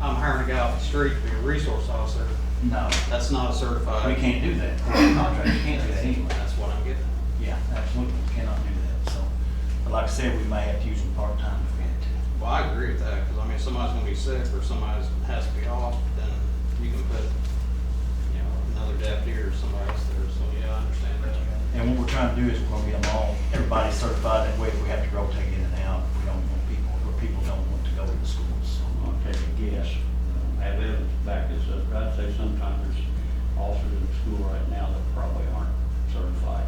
I'm hiring a guy off the street to be a resource officer. No, That's not a certified. we can't do that. Contract, you can't do that anyway. That's what I'm getting at. Yeah, absolutely, we cannot do that, so. But like I said, we may have to use them part-time if we had to. Well, I agree with that, because I mean, if somebody's gonna be sick or somebody's has to be off, then you can put, you know, another deputy or somebody else there, so yeah, I understand that. And what we're trying to do is we're gonna get them all, everybody certified, that way if we have to rotate in and out, we don't want people, or people don't want to go to the schools. I'll take a guess. Uh, I live back this up, but I'd say sometimes there's officers in school right now that probably aren't certified.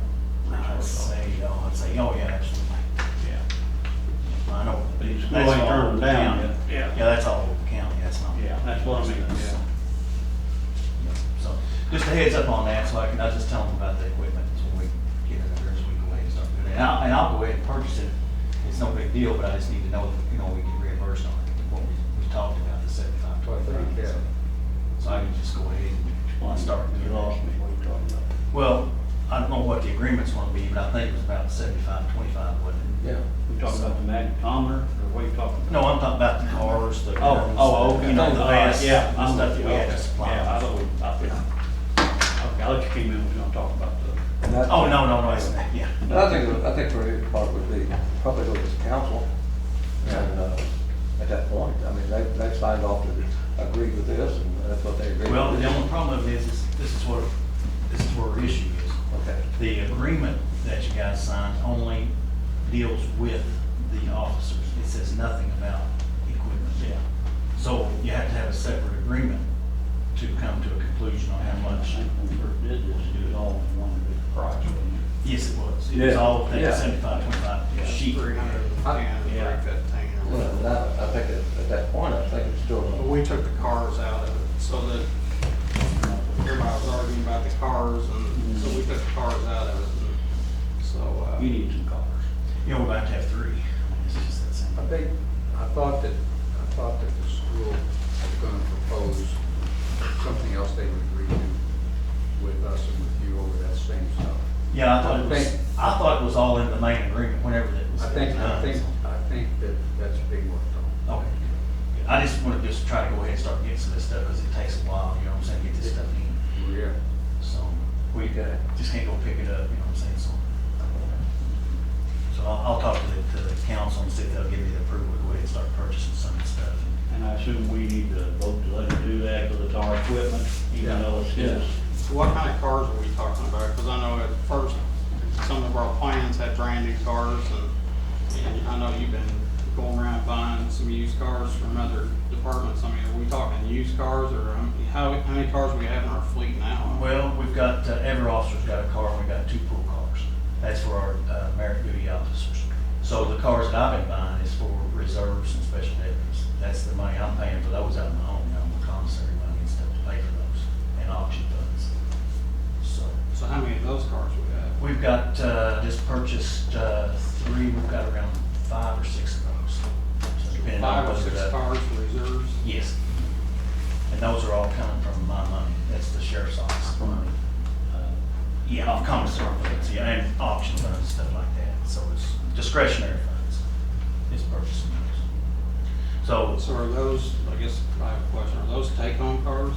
I'd say, you know, I'd say, oh, yeah, absolutely. Yeah. I know. But you still That's ain't all turning over them down. county. Yeah. Yeah, that's all over county, that's not. Yeah, that's what I mean, yeah. Yeah, So, just a heads up on that, so I can, I'll just tell them about the equipment, so we get it up there, so we can go ahead and start doing it. And I'll, and I'll go ahead and purchase it, it's no big deal, but I just need to know, you know, we get reimbursed on it, what we, we talked about, the seventy-five, twenty-five. Yeah. so- So I can just go ahead and start You doing lost me, it. what are you talking about? Well, I don't know what the agreement's gonna be, but I think it was about seventy-five, twenty-five, wasn't it? Yeah. You talking about the magnetometer, or what are you talking about? No, I'm talking about the cars, the. Oh, oh, okay. You know, the Uh, vans, the yeah, stuff I'm that we with you, had to okay. supply. Yeah, I thought we, I think, okay, I thought you came in, we are gonna talk about the, And I- Oh, no, no, no, it's not, yeah. But I think, I think for his part would be probably go to the council and, uh, at that point, I mean, they, they signed off to agree with this and that's what they agreed. Well, with. the only problem is, is this is what, this is where our issue is. Okay, The agreement that you guys signed only deals with the officers. It says nothing about equipment. yeah. So you have to have a separate agreement to come to a conclusion on how I much. think when we first did this, it was all one big price, wasn't it? Yes, it was. It was Yeah. all that Yeah. seventy-five, twenty-five sheet. Three hundred and Yeah. ten, three fifteen or well, whatever. that, I think at, at that point, I think it's But still, we took the cars out of it, so that everybody was arguing about the cars, and so we took the cars out of it, and so, uh. You need some cars. You know, we're about to have three. It's just that I simple. think, I thought that, I thought that the school was gonna propose something else they would agree to with us and with you over that same stuff. Yeah, I thought it was, I think- I thought it was all in the main agreement whenever that was. I think, I done, think, so. I think that that's being worked on. Okay. I just want to just try to go ahead and start getting some of this stuff, because it takes a while, you know what I'm saying, get this stuff in. Yeah. So we uh, just can't go pick it up, you know what I'm saying, so. So I'll, I'll talk to the, to the council and see if they'll give me the approval to go ahead and start purchasing some of the stuff. And I assume we need to vote to let her do that because it's our equipment, even though it's his. So what kind of cars are we talking about? Because I know at first, some of our plans had brand new cars, and, and I know you've been going around buying some used cars from other departments. I mean, are we talking used cars, or um, how, how many cars we have in our fleet now? Well, we've got, uh, every officer's got a car, and we've got two pool cars. That's for our uh, merit duty officers. So the cars that I've been buying is for reserves and special deputies. That's the money I'm paying for those out of my own, you know, my commissary money and stuff to pay for those, and auction funds. So, So how many of those cars we have? we've got, uh, just purchased uh, three, we've got around five or six of those. So depending Five on or whether six the- cars for reserves? Yes. And those are all coming from my money, that's the sheriff's office money. Uh, Yeah, off commissary funds, yeah, and auction funds, and stuff like that, so it's discretionary funds, it's purchasing those. So, So are those, I guess I have a question, are those take-home cars?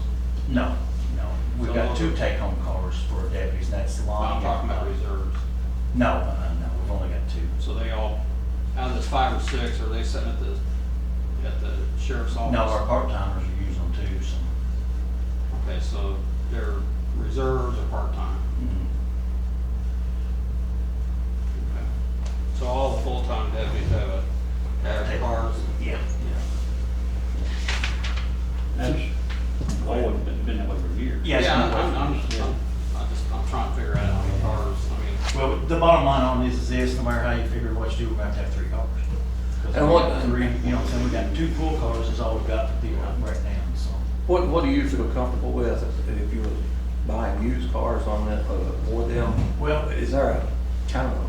no, no, we've got two take-home cars for deputies, and that's long. I'm talking about reserves. No, uh, no, we've only got two. So they all, out of this five or six, are they sitting at the, at the sheriff's office? No, our part-timers are using them too, so. Okay, so they're reserves or part-time? Okay. So all the full-time deputies have a, have cars? Yeah. That's always been, been that way for years. Yeah. Yes, Yeah, I'm, no I'm, I'm, question. I just, I'm trying to figure out how many cars, I mean, Well, the bottom line on this is this, no matter how you figure what you do, we're gonna have to have three cars. 'Cause And we what- got Three, you know, what I'm saying, we got two pool cars is all we've got to deal with right now, so. what, what do you feel comfortable with if- if you were buying used cars on that, uh, for them? Well, Is there a kind of a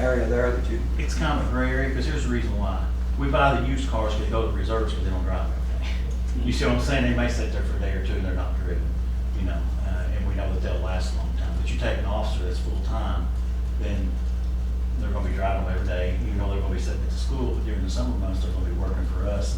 area there that you, it's kind of a gray area, because here's the reason why. We buy the used cars because they go to the reserves because they don't drive everything. You see what I'm saying? They may sit there for a day or two and they're not driven, you know, uh, and we know that they'll last a long time. But you take an officer that's full-time, then they're gonna be driving them every day, even though they're gonna be sitting at the school, but during the summer months, they're gonna be working for us